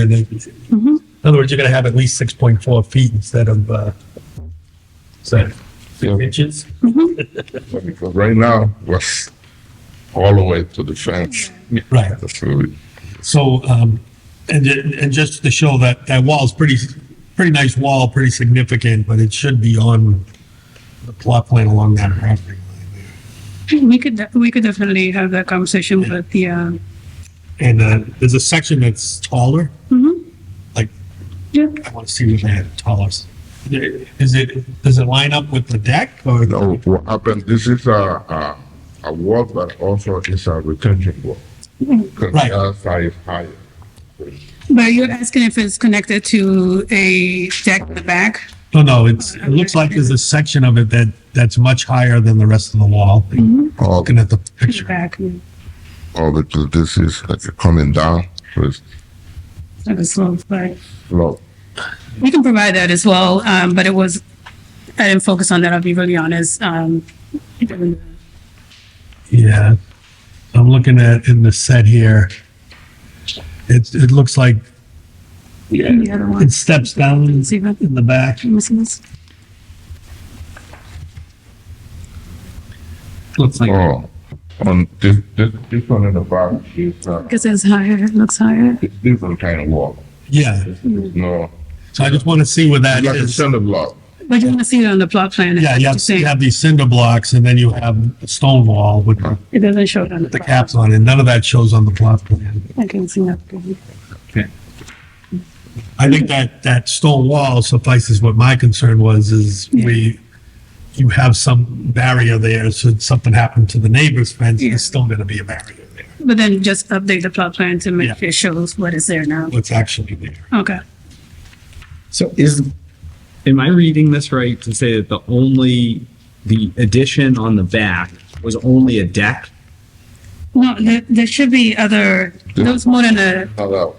And it- Mm-hmm. In other words, you're gonna have at least six point four feet instead of, uh, so, Yeah. six inches? Because right now, was all the way to the fence. Right. That's really, So, um, and, ju- and just to show that, that wall's pretty, pretty nice wall, pretty significant, but it should be on the plot plan along that property line. We could, def- we could definitely have that conversation with the, uh, And, uh, there's a section that's taller, mhm, yeah, I wanna see what they had taller. Is it, does it line up with the deck or? you know, what happened, this is a, a, a wall, but also is a retention wall. Because Right. the other side is higher. but you're asking if it's connected to a deck in the back? No, no, it's, it looks like there's a section of it that, that's much higher than the rest of the wall. Mm-hmm. All, Looking at the picture, Back, yeah. all the, this is like coming down, so it's Like a slope, right. slow. We can provide that as well, um, but it was, I didn't focus on that, I'll be really honest, um. yeah. I'm looking at in the set here. It's, it looks like The other one, it steps down see in that? the back. You see this? Looks like, Oh, on this, this, this one in the back is, uh, Because it's higher, it looks higher. it's different kind of wall. yeah, No, so I just want to see where that it's like a is. cinder block. But you want to see it on the plot plan. Yeah, you have, you It have these cinder blocks and then you have a stone wall with doesn't show it on the. the plot. caps on it. None of that shows on the plot plan. I can see that. I think that, that stone wall suffices what my concern was, is we, you have some barrier there, so if something happened to the neighbor's fence, Yeah. there's still gonna be a barrier there, But then just update the plot plan to make Yeah. sure it shows what is there now. what's actually there. Okay. So is, am I reading this right to say that the only, the addition on the back was only a deck? No, there, there should be other, there was more than a, Another,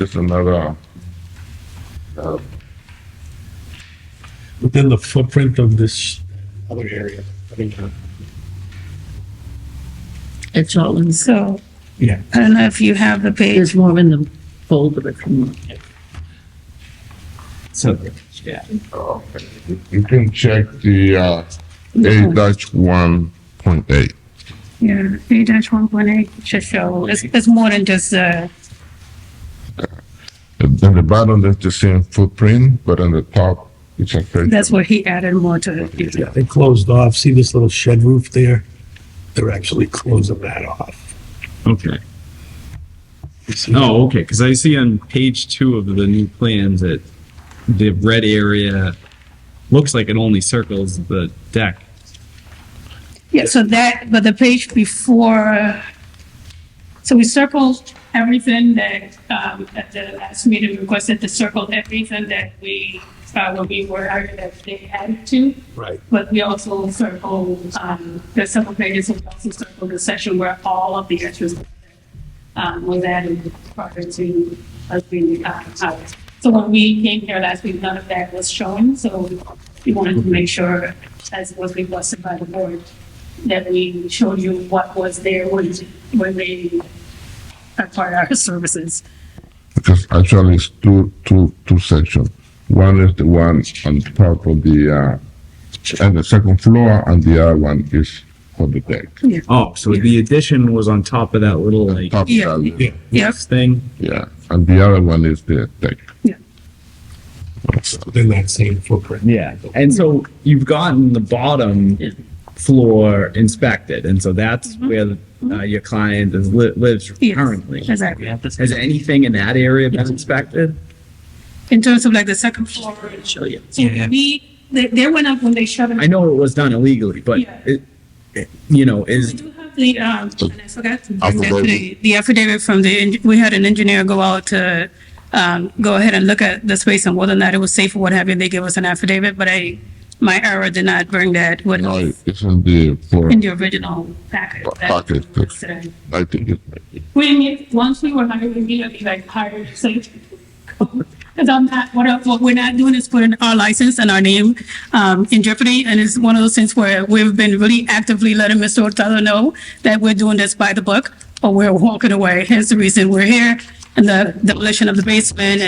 it's another, uh, Within the footprint of this other area. I think, uh, It's all in, so Yeah, I don't know if you have the page. there's more in the folder if you want. So, yeah. You can check the uh, A dash one point eight. Yeah, A dash one point eight should show, it's, it's more than just, uh, At the bottom, there's the same footprint, but on the top, it's a third. that's where he added more to it. yeah, they closed off, see this little shed roof there? They're actually closing that off. Okay. You see? Oh, okay. Cause I see on page two of the new plans that the red area looks like it only circles the deck. Yeah, so that, but the page before, so we circled everything that, um, at the last meeting requested to circle everything that we, uh, when we were, hired that they added to. Right, But we also circle, um, there's several pages, and we also circle the section where all of the extras um, was added prior to us being, uh, out. So when we came here last week, none of that was shown, so we wanted to make sure, as was requested by the board, that we showed you what was there when, when they acquired our services. Because actually, it's two, two, two sections. One is the one on top of the, uh, and the second floor, and the other one is for the deck. Oh, so the addition was on top of that little like Top Yeah. value, yeah, Yep. thing? yeah, and the other one is the deck. within that same footprint. Yeah. And so you've gotten the bottom floor inspected. And so that's where uh, your client is, li- lives Mm-hmm. Yes, currently. Exactly. Has anything in that area been inspected? In terms of like the second floor, so you. we, they, they went up when they shut it. I know it was done illegally, but Yeah. it, it- you know, We is, do have the, um, and I forgot to bring that Affidavit. today, the affidavit from the, en- we had an engineer go out to, um, go ahead and look at the space and whether or not it was safe or what have you, they gave us an affidavit, but I, my error did not bring that with No, us it's in the floor, in the original packet. that Packet. was today. I think it's We imme- once we were hired, we immediately like hired, so. Cause I'm not, what, I- what we're not doing is putting our license and our name, um, in jeopardy. And it's one of those things where we've been really actively letting Mr. Hurtado know that we're doing this by the book or we're walking away. Here's the reason we're here. and the demolition of the basement